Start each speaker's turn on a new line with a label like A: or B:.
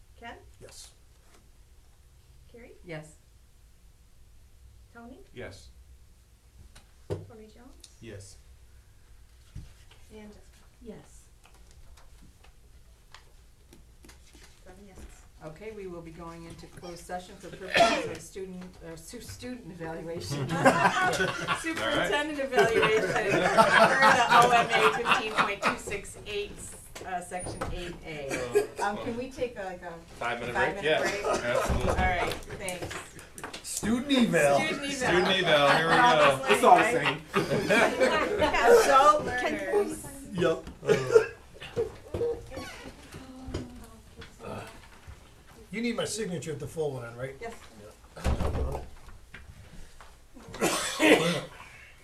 A: Yes.
B: Tony,
C: Yes.
B: Tony Jones,
C: Yes.
B: and Jessica.
A: Yes.
B: Seven yeses.
A: Okay, we will be going into closed session for purposes of student, uh, su- student evaluation. Superintendent evaluation, per the OMA fifteen point two six eight, uh, section eight A. Um, can we take like a
C: Five minute
A: five
C: Oh, break, yes.
A: minute break? All
C: Absolutely.
A: right, thanks.
D: Student eval.
A: Student
C: Student
A: eval.
C: eval, here we go.
A: It's all the same. So,
B: Learners.
D: Yep. You need my signature at the full one, right?
A: Yes,